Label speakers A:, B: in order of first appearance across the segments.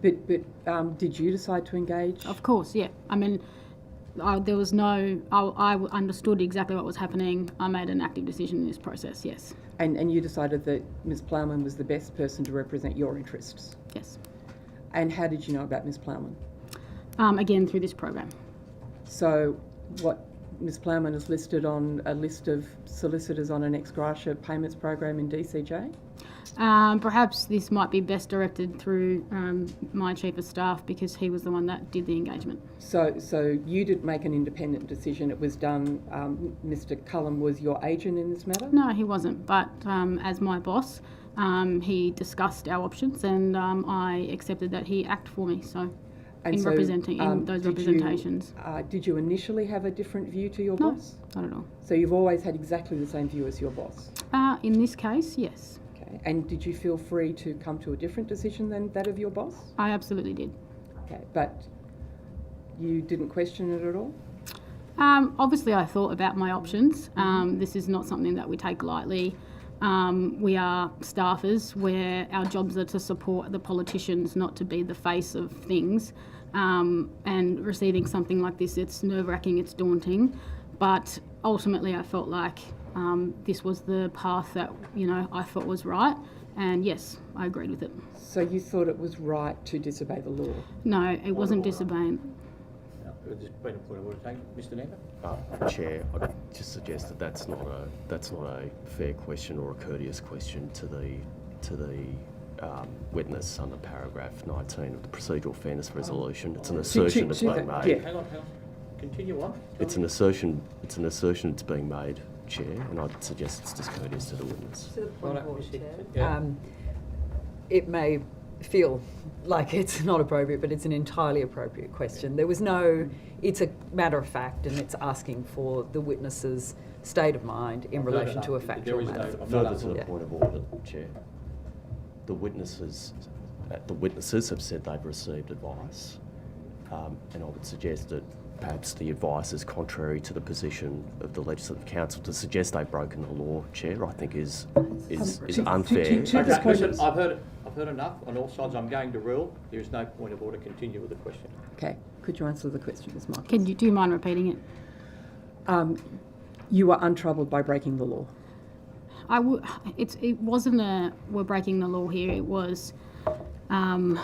A: But, but um, did you decide to engage?
B: Of course, yeah. I mean, I, there was no. I, I understood exactly what was happening. I made an active decision in this process. Yes,
A: And, and you decided that Ms. Plowman was the best person to represent your interests.
B: yes.
A: And how did you know about Ms. Plowman?
B: Um, again, through this program.
A: So, what Ms. Plowman is listed on a list of solicitors on an ex gratia payments program in DCJ?
B: Um, perhaps this might be best directed through um, my chief of staff because he was the one that did the engagement.
A: So, so you didn't make an independent decision. It was done. Um, Mr. Cullen was your agent in this matter.
B: No, he wasn't. But um, as my boss, um, he discussed our options, and um, I accepted that he act for me. So,
A: And
B: in
A: so,
B: representing in
A: um,
B: those
A: did you-
B: representations,
A: Uh, did you initially have a different view to your
B: No.
A: boss?
B: not at all.
A: So you've always had exactly the same view as your boss.
B: Uh, in this case, yes,
A: Okay. And did you feel free to come to a different decision than that of your boss?
B: I absolutely did.
A: Okay. But you didn't question it at all.
B: Um, obviously, I thought about my options. Um, this is not something that we take lightly. Um, we are staffers where our jobs are to support the politicians, not to be the face of things. Um, and receiving something like this, it's nerve wracking, it's daunting. But ultimately, I felt like um, this was the path that you know I thought was right. And yes, I agreed with it.
A: So you thought it was right to disobey the law.
B: No, it wasn't
C: order.
B: disobeying.
C: No, it was been a point of order taken. Mr Neva?
D: Uh, Chair, I just suggest that that's not a that's not a fair question or a courteous question to the to the um, witness under paragraph 19 of the procedural fairness resolution. It's an assertion that's
A: to
D: being
A: that,
D: made.
A: yeah.
C: Hang on, hang on. Continue on. Tell
D: It's
C: me.
D: an assertion. It's an assertion that's being made, Chair, and I'd suggest it's discourteous to the witness.
E: To the point of
C: Right,
E: order,
C: we see-
E: Chair.
C: yeah.
E: Um, It may feel like it's not appropriate, but it's an entirely appropriate question. There was no, it's a matter of fact, and it's asking for the witness's state of mind in
C: No, no,
E: relation
C: no,
E: to a
C: there
E: factual
C: is no-
E: matter.
C: I'm not
D: Further to
C: asking-
D: the
E: Yeah.
D: point of order, Chair, the witnesses, uh, the witnesses have said they've received advice, um, and I would suggest that perhaps the advice is contrary to the position of the Legislative Council. To suggest they've broken the law, Chair, I think is is, is
A: to- to-
D: unfair.
A: to- to
D: and
A: this
C: Okay,
A: question-
C: listen,
D: discourteous.
C: I've heard, I've heard enough on all sides. I'm going to rule. There is no point of order. Continue with the question.
A: Okay. Could you answer the question, Ms. Michaels?
B: Can you do you mind repeating it?
A: Um, you were untroubled by breaking the law.
B: I w- it's, it wasn't a we're breaking the law here. It was um,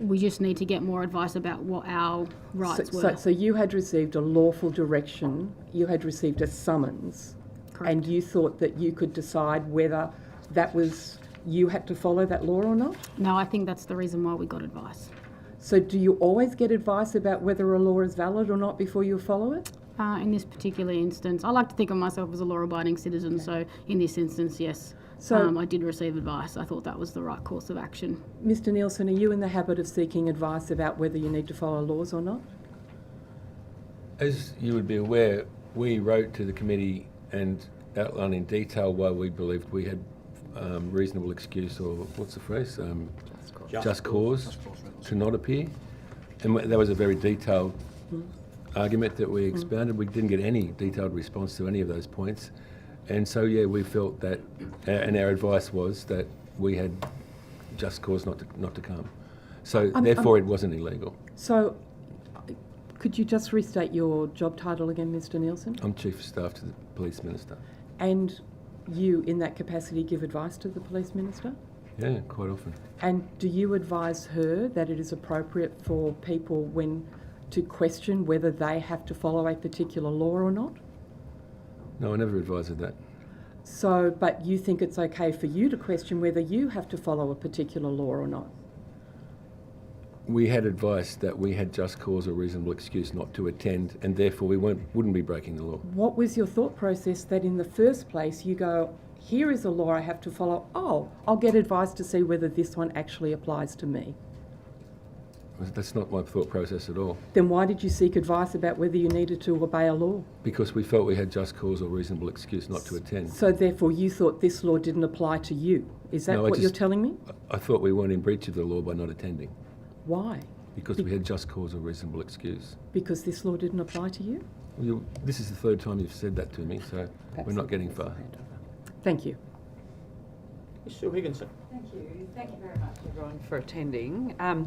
B: we just need to get more advice about what our rights
A: so,
B: were.
A: so, so you had received a lawful direction, you had received a summons, and
B: Correct.
A: you thought that you could decide whether that was you had to follow that law or not.
B: no, I think that's the reason why we got advice.
A: So, do you always get advice about whether a law is valid or not before you follow it?
B: Uh, in this particular instance, I like to think of myself as a law-abiding citizen. So in this instance, yes,
A: So-
B: um, I did receive advice. I thought that was the right course of action.
A: Mr. Nielsen, are you in the habit of seeking advice about whether you need to follow laws or not?
F: As you would be aware, we wrote to the committee and outlined in detail why we believed we had um, reasonable excuse or what's the phrase? Um,
C: Just
F: just cause to not appear. And wh- that was a very detailed argument that we expounded. We didn't get any detailed response to any of those points. And so, yeah, we felt that, a- and our advice was that we had just cause not to, not to come. So
A: I'm-
F: therefore, it wasn't illegal.
A: So, could you just restate your job title again, Mr. Nielsen?
F: I'm chief of staff to the police minister.
A: And you, in that capacity, give advice to the police minister?
F: Yeah, quite often.
A: And do you advise her that it is appropriate for people when to question whether they have to follow a particular law or not?
F: No, I never advised of that.
A: So, but you think it's okay for you to question whether you have to follow a particular law or not?
F: We had advice that we had just cause or reasonable excuse not to attend, and therefore we won't, wouldn't be breaking the law.
A: What was your thought process that in the first place you go, here is a law I have to follow, oh, I'll get advice to see whether this one actually applies to me?
F: That's not my thought process at all,
A: Then why did you seek advice about whether you needed to obey a law?
F: because we felt we had just cause or reasonable excuse not to attend.
A: So, therefore, you thought this law didn't apply to you. Is that
F: No, I
A: what you're
F: just-
A: telling me?
F: I- I thought we weren't in breach of the law by not attending,
A: Why?
F: because we had just cause or reasonable excuse.
A: Because this law didn't apply to you?
F: Well, you- This is the third time you've said that to me, so we're not getting far.
A: Thank you.
C: Sue Higginson.
E: Thank you. Thank you very much, everyone, for attending. Um,